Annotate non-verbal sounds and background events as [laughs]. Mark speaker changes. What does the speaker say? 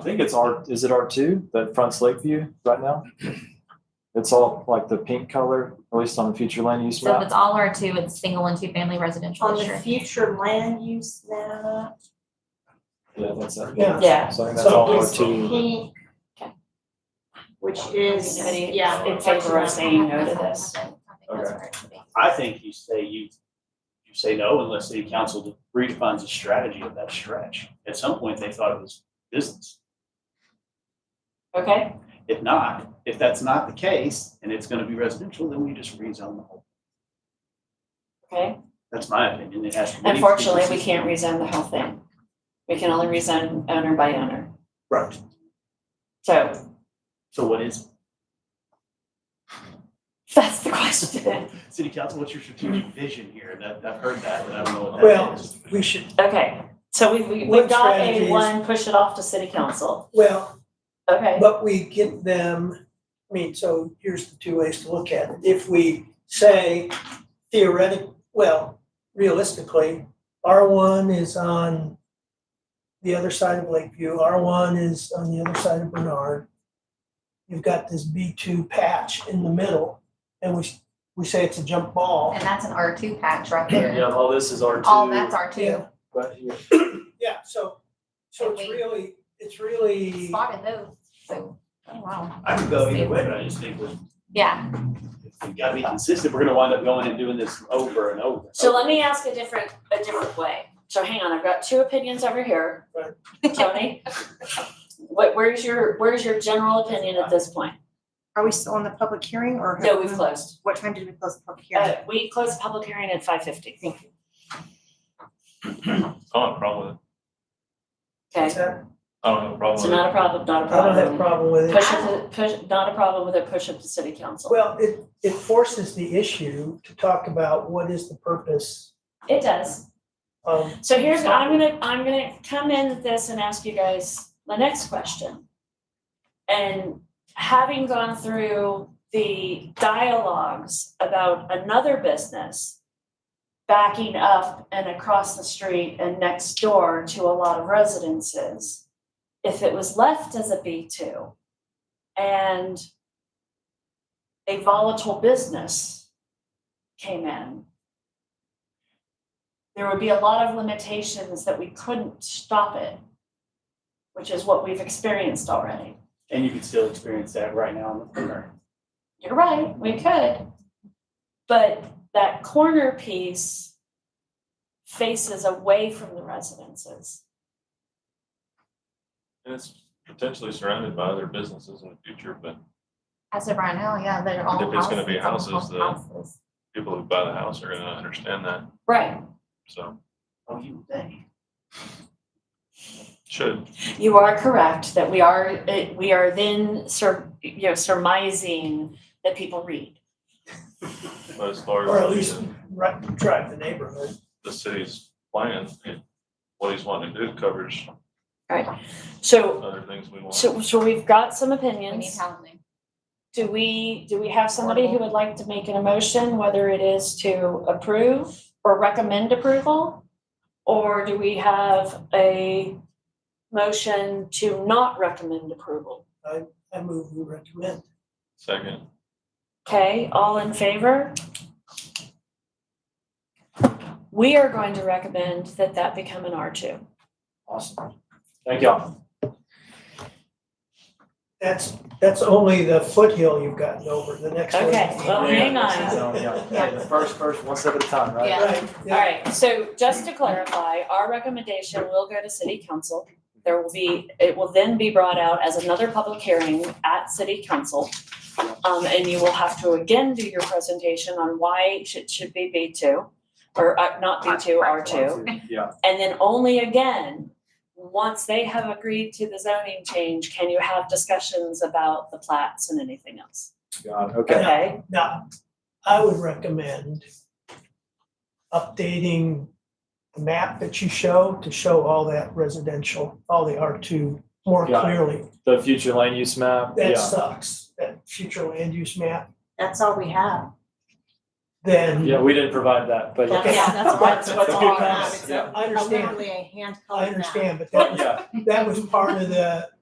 Speaker 1: I think it's R, is it R two, that fronts Lakeview right now? It's all like the pink color, at least on the future land use
Speaker 2: So if
Speaker 1: map.
Speaker 2: it's all R two, it's single and two family residential,
Speaker 3: On the
Speaker 2: sure.
Speaker 3: future land use map.
Speaker 1: Yeah, that's it.
Speaker 4: Yeah.
Speaker 3: Yeah.
Speaker 1: So I think that's all R
Speaker 3: It's
Speaker 1: two.
Speaker 3: pink, Which is,
Speaker 4: Anybody
Speaker 3: yeah.
Speaker 4: in favor of saying no to this?
Speaker 2: I think that's where it should be.
Speaker 5: I think you say you, you say no unless city council redefines the strategy of that stretch. At some point, they thought it was business.
Speaker 4: Okay,
Speaker 5: If not, if that's not the case and it's gonna be residential, then we just rezone the whole.
Speaker 4: okay.
Speaker 5: That's my opinion. It has to be.
Speaker 4: Unfortunately, we can't rezone the whole thing. We can only rezone owner by owner.
Speaker 5: Right.
Speaker 4: So [laughs]
Speaker 5: So what is,
Speaker 4: that's the question.
Speaker 5: city council, what's your strategic vision here? That, I've heard that, but I don't know what
Speaker 6: Well-
Speaker 5: that is.
Speaker 6: We should,
Speaker 4: Okay, so we, we, we
Speaker 6: What
Speaker 4: got a
Speaker 6: strategies?
Speaker 4: one, push it off to city council.
Speaker 6: well,
Speaker 4: Okay,
Speaker 6: but we get them, I mean, so here's the two ways to look at it. If we say theoretic, well, realistically, R one is on the other side of Lakeview, R one is on the other side of Bernard. You've got this B two patch in the middle, and we, we say it's a jump ball.
Speaker 2: And that's an R two patch
Speaker 7: [laughs]
Speaker 2: right there.
Speaker 1: Yeah, all this is R two.
Speaker 2: All that's R two.
Speaker 6: Yeah.
Speaker 1: But here,
Speaker 6: Yeah, so, so it's
Speaker 2: And we-
Speaker 6: really, it's really,
Speaker 2: Spotted those, so, oh wow.
Speaker 5: I could go either way, but I just think we're,
Speaker 2: Yeah, [laughs]
Speaker 5: we've gotta be consistent. We're gonna wind up going and doing this over and over.
Speaker 4: so let me ask a different, a different way. So hang on, I've got two opinions over here.
Speaker 6: [laughs]
Speaker 4: Tony? What, where's your, where's your general opinion at this point?
Speaker 8: Are we still on the public hearing or? have
Speaker 4: No, we've
Speaker 8: we-
Speaker 4: closed.
Speaker 8: What time did we close the public hearing?
Speaker 4: Uh, we closed the public hearing at five fifty. Thank you.
Speaker 7: I don't have a problem with it.
Speaker 4: Okay,
Speaker 6: it's not-
Speaker 7: I don't have a
Speaker 4: so
Speaker 7: problem with it.
Speaker 4: not a problem, not a
Speaker 6: I don't have a
Speaker 4: problem.
Speaker 6: problem with it.
Speaker 4: Push it, to- push, not a problem with it, push it to city council.
Speaker 6: Well, it, it forces the issue to talk about what is the purpose
Speaker 4: It does.
Speaker 6: of,
Speaker 4: So here's, I'm gonna, I'm gonna come in with this and ask you guys the next question. And having gone through the dialogues about another business backing up and across the street and next door to a lot of residences, if it was left as a B2 and a volatile business came in, there would be a lot of limitations that we couldn't stop it, which is what we've experienced already.
Speaker 5: And you can still experience that right now in the corner.
Speaker 4: You're right, we could. But that corner piece faces away from the residences.
Speaker 7: And it's potentially surrounded by other businesses in the future, but
Speaker 2: as of right now, yeah, they're all
Speaker 7: If it's gonna be
Speaker 2: houses,
Speaker 7: houses,
Speaker 2: all
Speaker 7: then-
Speaker 2: houses.
Speaker 7: people who buy the house are gonna understand that,
Speaker 4: Right.
Speaker 7: so
Speaker 5: Oh, you think?
Speaker 7: should.
Speaker 4: You are correct that we are, eh, we are then sur, you know, surmising that people read.
Speaker 7: But as far
Speaker 6: Or at
Speaker 7: as
Speaker 6: least-
Speaker 7: the-
Speaker 6: right, drive the neighborhood.
Speaker 7: the city's plan, it- what he's wanting to do covers
Speaker 4: So,
Speaker 7: other things we want.
Speaker 4: so, so we've got some
Speaker 2: We need
Speaker 4: opinions.
Speaker 2: housing.
Speaker 4: Do we, do we have somebody who would like to make an emotion, whether it is to approve or recommend approval? Or do we have a motion to not recommend approval?
Speaker 6: I move we recommend.
Speaker 7: Second,
Speaker 4: Okay, all in favor? We are going to recommend that that become an R2.
Speaker 1: awesome. Thank y'all.
Speaker 6: That's, that's only the foothill you've gotten over, the next one.
Speaker 4: Okay, well, hang on.
Speaker 1: So, yeah, yeah, the first, first, one step at a time, right?
Speaker 2: Yeah.
Speaker 6: Right,
Speaker 4: All
Speaker 6: yeah,
Speaker 4: right, so just to clarify, our recommendation will go to city council. There will be, it will then be brought out as another public hearing at city council. Um, and you will have to again do your presentation on why it should, should be B two, or uh, not B two, R two.
Speaker 1: Yeah,
Speaker 4: And then only again, once they have agreed to the zoning change, can you have discussions about the plats and anything else?
Speaker 1: God, okay.
Speaker 4: Okay,
Speaker 6: now, I would recommend updating the map that you show to show all that residential, all the R two more
Speaker 1: Got it.
Speaker 6: clearly.
Speaker 1: The future land use map,
Speaker 6: That
Speaker 1: yeah,
Speaker 6: sucks, that future land use map,
Speaker 3: That's all we have.
Speaker 6: then.
Speaker 1: yeah, we didn't provide that, but
Speaker 6: Okay.
Speaker 1: yeah.
Speaker 3: Yeah,
Speaker 1: [laughs]
Speaker 3: that's what's,
Speaker 1: That's
Speaker 3: what's
Speaker 1: a
Speaker 3: all
Speaker 1: good
Speaker 3: I
Speaker 1: comment,
Speaker 3: have. It's
Speaker 1: yeah.
Speaker 3: a-
Speaker 6: I
Speaker 3: a
Speaker 6: understand,
Speaker 3: literally a hand
Speaker 6: I
Speaker 3: colored map. [laughs]
Speaker 6: understand, but that
Speaker 1: But
Speaker 6: was
Speaker 1: yeah,
Speaker 6: that was part of the,